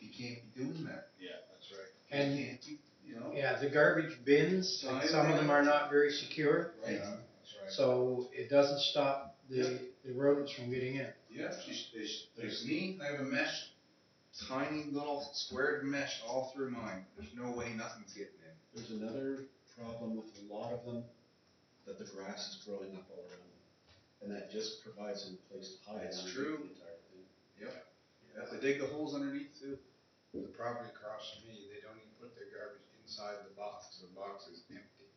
can't be doing that. Yeah, that's right. You And, can't, be- you know, yeah, the garbage bins, like, some of them are not very secure, right, Yeah, That's right. so it doesn't stop the, the rodents from getting in. yeah, just, there's, there's me, I have a mesh, tiny little squared mesh all through mine, there's no way nothing's getting in. There's another problem with a lot of them, that the grass is growing up all around them, and that just provides them a place to hide. That's underneath true. The entire thing. You have to dig the holes underneath too. The property across from me, they don't even put their garbage inside the box, the box is empty.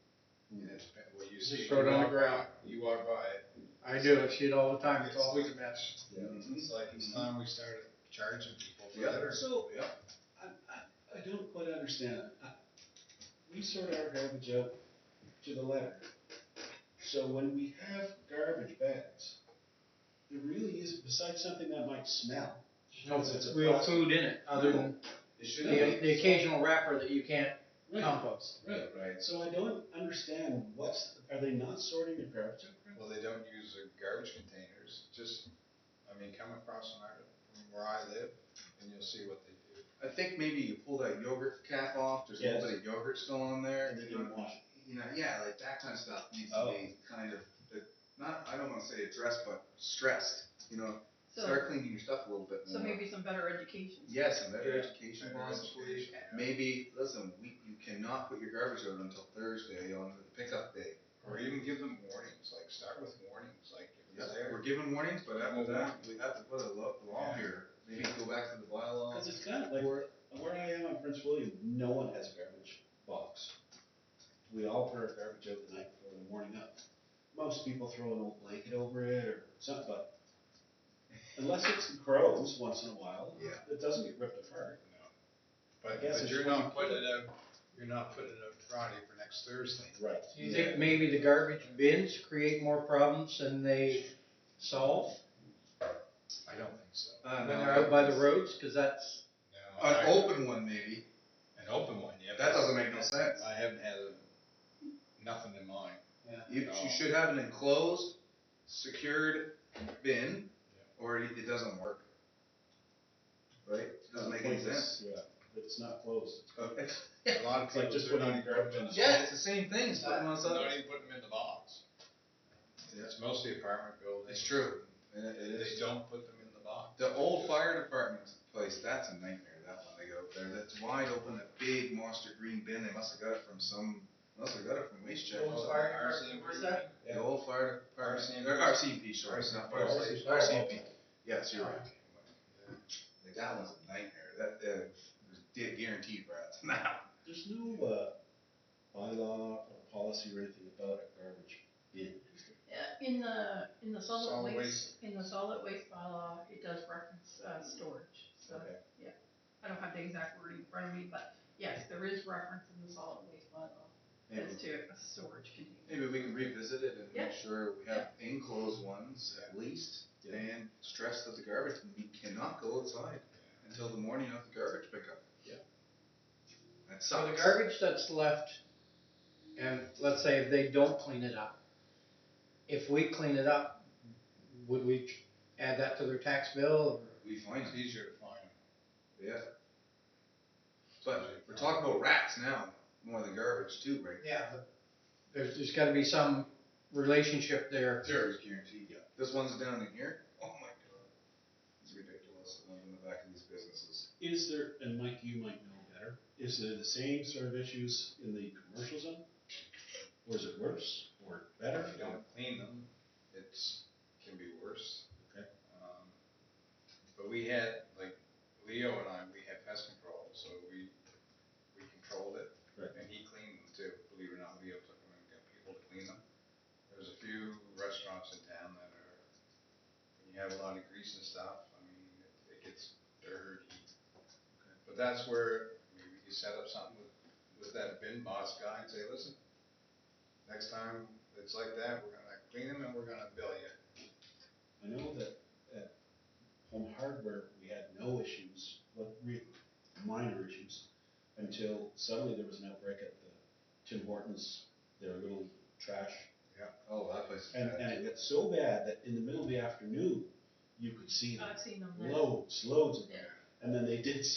And it's, been- well, you Just see. throw it you on walk the ground. by- You walk by it. I do, I see it all the time, it's always a mess. Mm-hmm. It's like, it's time we started charging people for Yeah. litter. So, Yeah. I, I, I don't quite understand. I- We sort our garbage out to the letter. So when we have garbage bags, there really is, besides something that might smell, No, it's real food in it, other than It the, should be. the occasional wrapper that you can't right, compost. right. Right, So I don't understand what's, are they not sorting their garbage out? correctly? Well, they don't use the garbage containers, just, I mean, come across an area from where I live, and you'll see what they do. I think maybe you pull that yogurt cap off, there's a little Yes. bit of yogurt still on there. And they you know, don't wash it. You know, yeah, like that kind of stuff needs to Oh. be kind of, not, I don't wanna say addressed, but stressed, you know, So, start cleaning your stuff a little bit so more. maybe some better education. Yes, and better Yeah, education better possibly. education, yeah. Maybe, listen, we, you cannot put your garbage out until Thursday on the pickup day. Or even give them warnings, like, start with warnings, like, if Yeah, it's there. We're given warnings, but after Well, that, we have to put a lo- law Yeah. here, maybe go back to the bylaws. Cause it's kind of like, where, where I am on Prince William, no one has a garbage box. We all put our garbage out the night before the morning up. Most people throw an old blanket over it or something, but unless it's the crows once in a while, Yeah. it doesn't get ripped apart. No. But, guess but it's you're what not you put putting it out, you're not putting it out Friday for next Thursday. Right. Do you think maybe the garbage bins create more problems than they solve I don't think so. Uh, when no, they're out by the roads? Cause that's, No. An I- open one maybe, An open one, yeah. that doesn't make no sense. I haven't had a- nothing in mind. You, you should have an enclosed, secured bin, or it, it doesn't work. Right? It doesn't make any sense. Yeah, but it's not closed. Okay. A lot of It's like people just do not putting even put them in. Yeah, it's the same thing, it's putting us up. Uh, Don't even put them in the box. Yeah. It's mostly apartment buildings. It's true. And it- it They is. don't put them in the box. The old fire department place, that's a nightmare, that one, they go up there, that's wide open, a big monster green bin, they must have got it from some, must have got it from waste check. Old fire department, where's that? The old fire department, RCMP. or RCMP, sorry, it's not fire RCMP. station, Oh, RCMP, yes, you're right. Like, that one's a nightmare, that, uh, there's di- guaranteed rats, now. There's no, uh, bylaw or policy or anything about a garbage bin. Yeah, In the, in the Solid solid waste, in the solid waste bylaw, it does reference, uh, storage, so. Okay. Yeah, I don't have the exact wording in front of me, but yes, there is reference in the solid waste bylaw Maybe, as to a storage container. maybe we can revisit it and Yeah. make sure we have enclosed ones at least, Yeah. and stress that the garbage, we cannot go outside until the morning of the garbage pickup. Yeah. That so sucks. the garbage that's left, and let's say if they don't clean it up. If we clean it up, would we add that to their tax bill? We find It's it, easier to find. yeah. But we're talking about rats now, more than garbage too, right? Yeah. There's, there's gotta be some relationship there. There's guaranteed, yeah. This one's down in here, oh my god. It's ridiculous, the one in the back of these businesses. Is there, and Mike, you might know better, is there the same sort of issues in the commercial zone? Or is it worse or better? If you don't clean them, it's, can be worse. Okay. Um, But we had, like, Leo and I, we had pest control, so we, we controlled it. Right. And he cleaned them too, believe it or not, Leo took them and got people to clean them. There's a few restaurants in town that are, when you have a lot of grease and stuff, I mean, it- it gets dirty. But that's where maybe you set up something with, with that bin boss guy and say, listen, next time it's like that, we're gonna clean them and we're gonna bill you. I know that at Home Hardware, we had no issues, but real minor issues, until suddenly there was an outbreak at the Tim Hortons, their little trash. Oh, that place is And, bad. and it got so bad that in the middle of the afternoon, you could see I've seen them there. loads, loads of them. Uh, Yeah. And then they did